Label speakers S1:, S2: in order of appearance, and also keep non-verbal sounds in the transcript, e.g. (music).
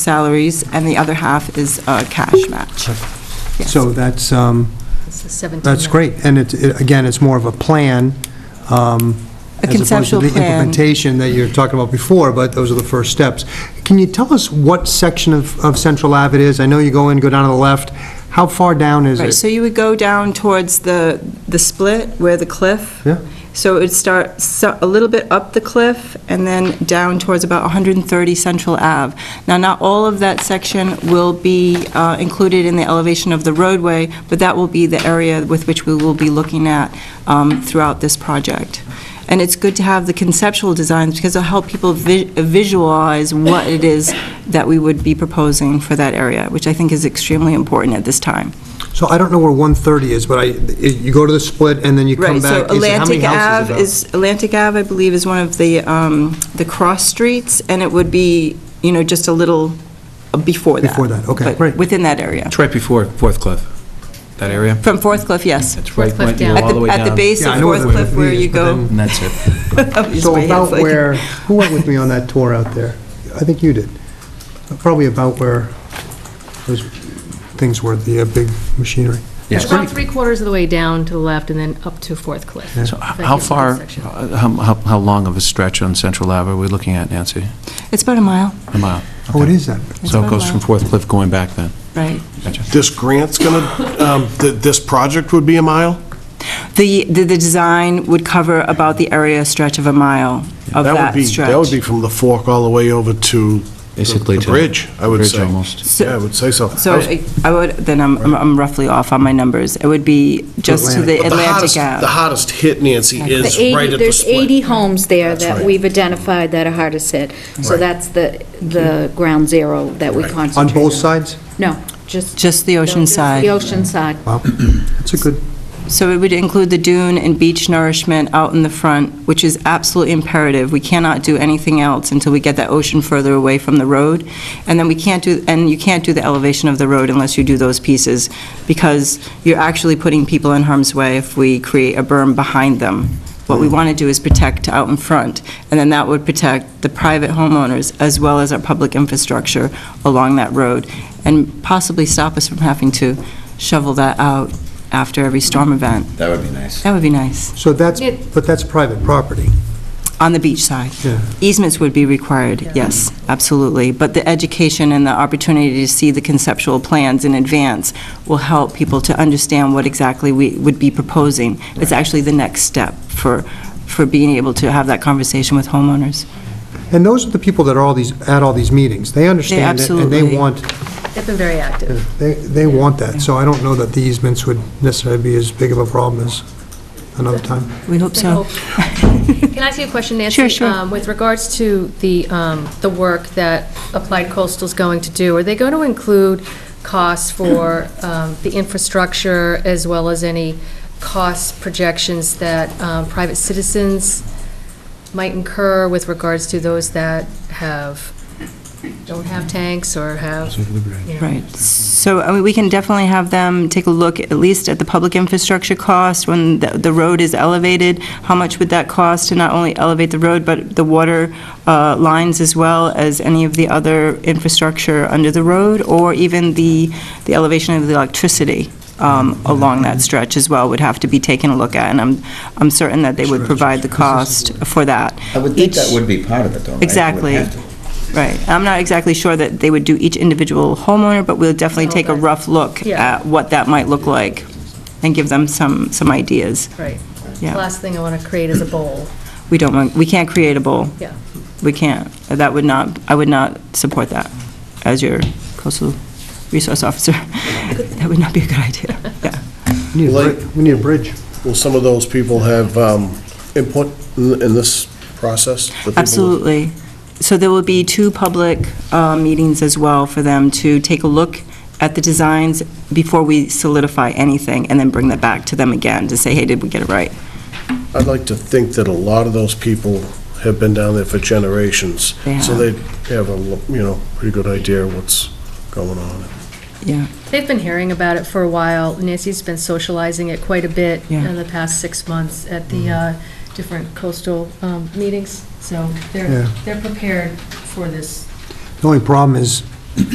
S1: salaries, and the other half is a cash match. Yes.
S2: So that's, um,
S3: This is 17.
S2: that's great. And it's, it- again, it's more of a plan. um,
S1: A conceptual
S2: As opposed to the
S1: plan.
S2: implementation that you were talking about before, but those are the first steps. Can you tell us what section of, of Central Ave it is? I know you go in, go down to the left. How far down is
S1: Right,
S2: it?
S1: so you would go down towards the, the split where the cliff.
S2: Yeah.
S1: So it would start so- a little bit up the cliff and then down towards about 130 Central Ave. Now, not all of that section will be uh, included in the elevation of the roadway, but that will be the area with which we will be looking at um, throughout this project. And it's good to have the conceptual designs because it'll help people vi- visualize what it is that we would be proposing for that area, which I think is extremely important at this time.
S2: So I don't know where 130 is, but I, you go to the split and then you
S1: Right,
S2: come
S1: so
S2: back. Is it- how many
S1: Atlantic
S2: houses
S1: Ave
S2: about?
S1: is, Atlantic Ave, I believe, is one of the, um, the cross streets, and it would be, you know, just a little uh, before that.
S2: Before that, okay,
S1: but
S2: great.
S1: Within that area.
S4: It's right before Fourth Cliff, that area.
S1: From Fourth Cliff, yes.
S4: It's right,
S3: Fourth Cliff
S4: when you go
S3: down.
S1: At
S4: all the way
S1: the,
S4: down.
S1: at the base
S2: Yeah, I
S1: of
S2: know where
S1: Fourth
S2: the
S1: Cliff where
S2: is,
S1: you
S2: but
S1: go.
S2: then-
S4: And that's it.
S1: (laughs) That was
S2: So
S1: my hand
S2: about
S1: flicking.
S2: where, who went with me on that tour out there? I think you did. Probably about where those things were, the uh, big machinery.
S4: Yes.
S3: About three quarters of the way down to the left and then up to Fourth Cliff.
S2: Yeah.
S4: So
S3: That
S4: how
S3: gives a good
S4: far,
S3: section.
S4: how, how how long of a stretch on Central Ave are we looking at, Nancy?
S1: It's about a mile,
S4: A mile?
S2: Oh, it
S4: Okay.
S2: is that?
S1: It's
S4: So
S1: about
S4: it
S1: a
S4: goes
S1: mile.
S4: from Fourth Cliff going back then?
S1: right.
S4: Gotcha.
S5: This grant's going to, this project would be a mile?
S1: The, the, the design would cover about the area stretch of a mile of
S5: would
S1: that
S5: be-
S1: stretch.
S5: That would be from the fork all the way over to
S4: Basically
S5: the the
S4: to-
S5: bridge, I would
S4: bridge
S5: say.
S4: almost.
S5: Yeah, I would say so.
S1: So
S5: I was-
S1: I I would, then I'm, I'm- I'm roughly off on my numbers. It would be just to the
S5: but the
S1: Atlantic
S5: hottest-
S1: Ave.
S5: The hottest hit, Nancy,
S6: The
S5: is
S6: 80
S5: right at the
S6: There's
S5: split.
S6: 80 homes there
S5: That's
S6: that
S5: right.
S6: we've identified that are hardest hit. So
S5: Right.
S6: that's the, the ground zero that we
S5: Right. On
S2: On
S6: concentrate on.
S2: both sides?
S6: No, just.
S1: Just the ocean side.
S6: The ocean side.
S2: Wow, that's a good,
S1: So it would include the dune and beach nourishment out in the front, which is absolutely imperative. We cannot do anything else until we get that ocean further away from the road. And then we can't do, and you can't do the elevation of the road unless you do those pieces, because you're actually putting people in harm's way if we create a berm behind them. What we want to do is protect out in front, and then that would protect the private homeowners as well as our public infrastructure along that road, and possibly stop us from having to shovel that out after every storm event.
S7: That would be nice.
S1: That would be nice,
S2: so that's,
S3: Yeah.
S2: but that's private property.
S1: on the beach side.
S2: Yeah.
S1: Easements would be required, yes, absolutely. But the education and the opportunity to see the conceptual plans in advance will help people to understand what exactly we would be proposing. It's actually the next step for, for being able to have that conversation with homeowners.
S2: And those are the people that are all these, at all these meetings. They understand it, and they
S1: absolutely-
S2: want,
S3: They've been very active.
S2: they, they want that. So I don't know that the easements would necessarily be as big of a problem as another time.
S1: We hope so. (laughs)
S3: Can I ask you a question, Nancy?
S1: Sure, sure.
S3: Um, With regards to the, um, the work that Applied Coastal's going to do, are they going to include costs for um, the infrastructure as well as any cost projections that um, private citizens might incur with regards to those that have, don't have tanks or have, you know,
S1: Right. So, I mean, we can definitely have them take a look, at least at the public infrastructure cost, when the, the road is elevated, how much would that cost to not only elevate the road, but the water uh, lines as well as any of the other infrastructure under the road, or even the, the elevation of the electricity um, along that stretch as well would have to be taken a look at, and I'm, I'm certain that they would provide the cost for that.
S7: I would think
S1: Each-
S7: that would be part of it, though, right? It would
S1: Exactly.
S7: have to.
S1: Right. I'm not exactly sure that they would do each individual homeowner, but we'll definitely take a rough look
S3: Yeah.
S1: at what that might look like and give them some, some ideas.
S3: right.
S1: Yeah.
S3: Last thing I want to create is a bowl.
S1: We don't, want- we can't create a bowl.
S3: Yeah.
S1: We can't. That would not, I would not support that as your coastal resource officer. (laughs) That would not be a good idea. Yeah.
S2: We need a bri- we need a bridge.
S5: Will some of those people have um, input in in this process? The people that-
S1: Absolutely. So there will be two public uh, meetings as well for them to take a look at the designs before we solidify anything, and then bring that back to them again to say, hey, did we get it right?
S5: I'd like to think that a lot of those people have been down there for generations.
S1: They
S5: So
S1: have.
S5: they have a, lo- you know, pretty good idea of what's going on.
S1: Yeah.
S3: They've been hearing about it for a while. Nancy's been socializing it quite a bit
S1: Yeah.
S3: in the past six months at the uh, different coastal um, meetings, so they're,
S2: Yeah.
S3: they're prepared for this.
S2: The only problem is